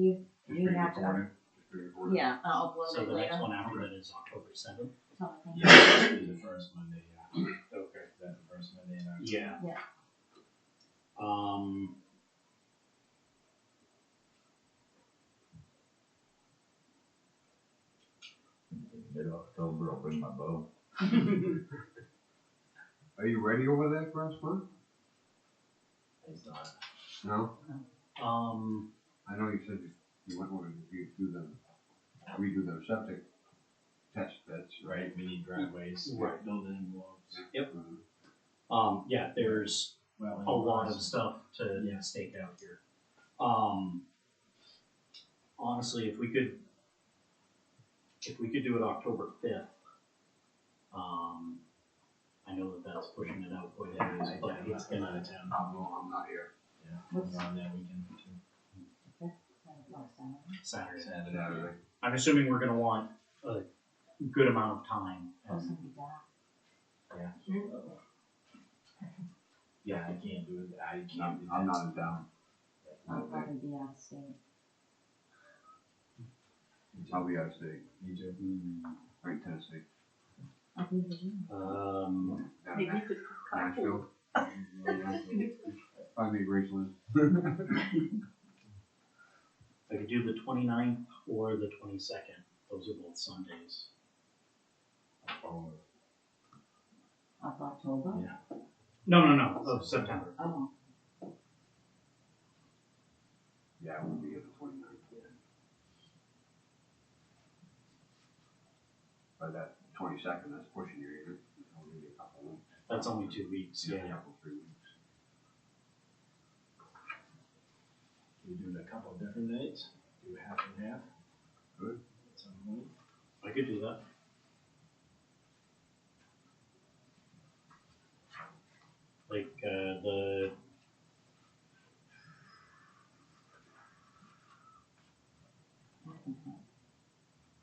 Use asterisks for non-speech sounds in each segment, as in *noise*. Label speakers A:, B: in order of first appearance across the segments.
A: You,
B: Just
A: you
B: being
A: have to,
B: recorded, just being recorded.
A: yeah, I'll upload
C: So
A: it
C: the next
A: later.
C: one after that is October seventh?
A: Something.
D: Yeah, it should be the first Monday,
A: *clears throat*
D: yeah.
C: Okay.
D: Is that the first Monday in October?
C: Yeah.
A: Yeah.
C: Um.
D: Mid October, I'll bring my bow.
B: *laughs* Are you ready over there for us, Mark?
D: It's not.
B: No,
C: Um,
B: I know you said you- you went over to do- do them, redo their septic test bits, right?
D: Right, we need driveways.
C: Right.
D: Building envelopes.
C: Yep.
B: Mhm.
C: um, yeah, there's
D: Well,
C: a lot of stuff to
D: Yeah.
C: stake out here. Um, honestly, if we could, if we could do it October fifth, um, I know that that's pushing it out quite a ways, but it's
D: I'm
C: gonna,
D: out of town.
B: Oh, no, I'm not here.
D: Yeah, I'm on that weekend too.
C: Saturday.
D: Saturday.
B: Saturday.
C: I'm assuming we're gonna want a good amount of time.
A: Oh,
C: and-
A: somebody died.
D: Yeah.
A: Ooh.
D: Yeah, I can't do it, I can't do
B: I'm
D: that.
B: I'm not in town.
A: I'll probably be out of uh, state.
B: I'll be out of state,
D: Me too.
B: Mm-hmm. right in Tennessee.
A: I'll be in Virginia.
C: Um,
B: Down
E: Maybe you
B: in
E: could carpool.
B: Nashville. *laughs* I mean, Graceland.
C: I could do the 29th or the twenty-second, those are both Sundays.
D: Oh,
A: Of October?
D: Yeah.
C: No, no, no, of September.
A: Oh,
B: Yeah, I won't be here the twenty-ninth. By that twenty-second, that's pushing you, isn't it? It's only a couple weeks.
C: That's only two weeks, yeah.
B: Couple, three weeks.
D: We do it a couple of different nights, do half and half.
B: Good.
D: At some point.
C: I could do that. Like, uh, the.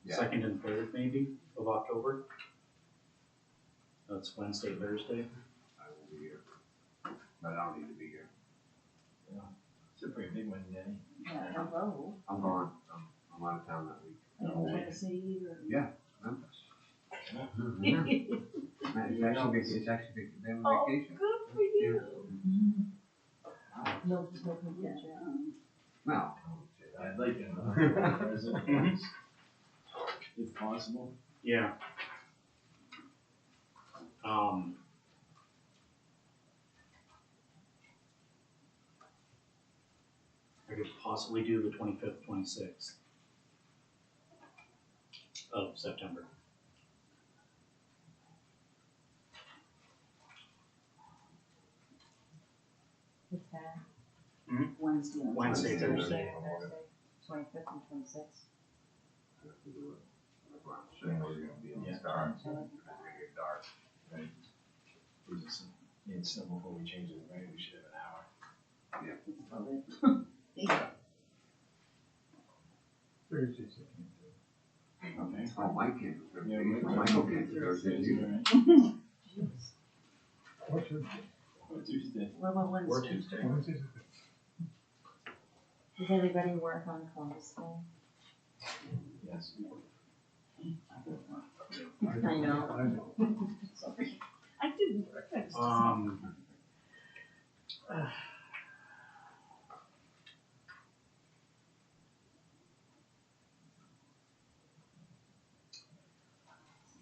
B: Yeah.
C: Second and third maybe of October. That's Wednesday, Thursday.
B: I will be here. But I don't need to be here.
D: It's a pretty big one today.
A: yeah, hello.
B: I'm gone. I'm, I'm out of town that week.
A: Are you in Kansas City or?
B: Memphis.
D: Yeah.
B: Mhm. *laughs* It's actually, vac- it's actually, vac- they were
E: Oh,
B: vacation.
E: Good for you.
A: Mm-hmm. No, no, no, yeah.
B: No.
D: I'd like to. present, If possible.
C: Yeah. Um. I could possibly do the twenty-fifth, twenty-sixth of September.
A: What's that?
C: Hmm?
A: Wednesday. and
C: Wednesday,
B: Thursday.
A: Thursday, Twenty-fifth and twenty-sixth.
B: I have to do it. That's why I'm
D: Yeah,
B: saying we're gonna be in the dark. It's
A: So,
B: gonna get dark.
D: Right. Is it some- yeah, It's still before we change it, right, we should have an hour.
A: it's probably-
D: Thursday, second. Okay.
B: Oh, my kids, they're,
D: Yeah,
B: they-
D: my-
B: Michael kids, they're, they're,
D: Thursday's
B: you.
D: all right.
A: Jeez.
D: Or Tuesday.
A: What about
C: Or
A: Wednesday?
C: Tuesday.
A: Does anybody work on Columbus Day?
D: Yes.
A: I know. *laughs* Sorry.
E: I didn't work, I was just.
C: Um.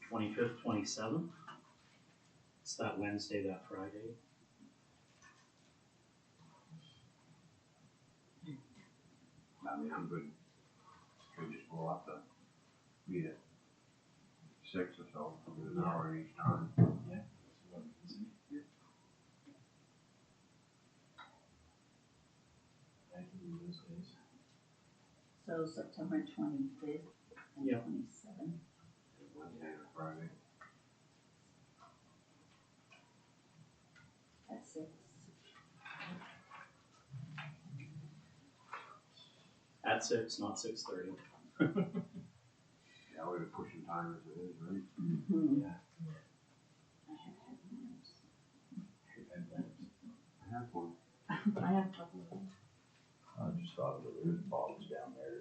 C: Twenty-fifth, twenty-seventh. It's that Wednesday, that Friday.
B: I mean, I'm good. We just go up to meet at six or so, an hour each time.
D: Yeah. that's what we can see. I can do those days.
E: So September twenty-fifth and
C: Yeah.
E: twenty-seventh.
B: Wednesday or Friday.
E: At six.
C: At six, not six thirty.
B: Yeah, we're pushing time as it is, right?
E: Mhm.
D: Yeah.
E: I have had naps.
D: Should have that.
B: I have one.
A: I have a couple of them.
B: I just thought of it, there's problems down there,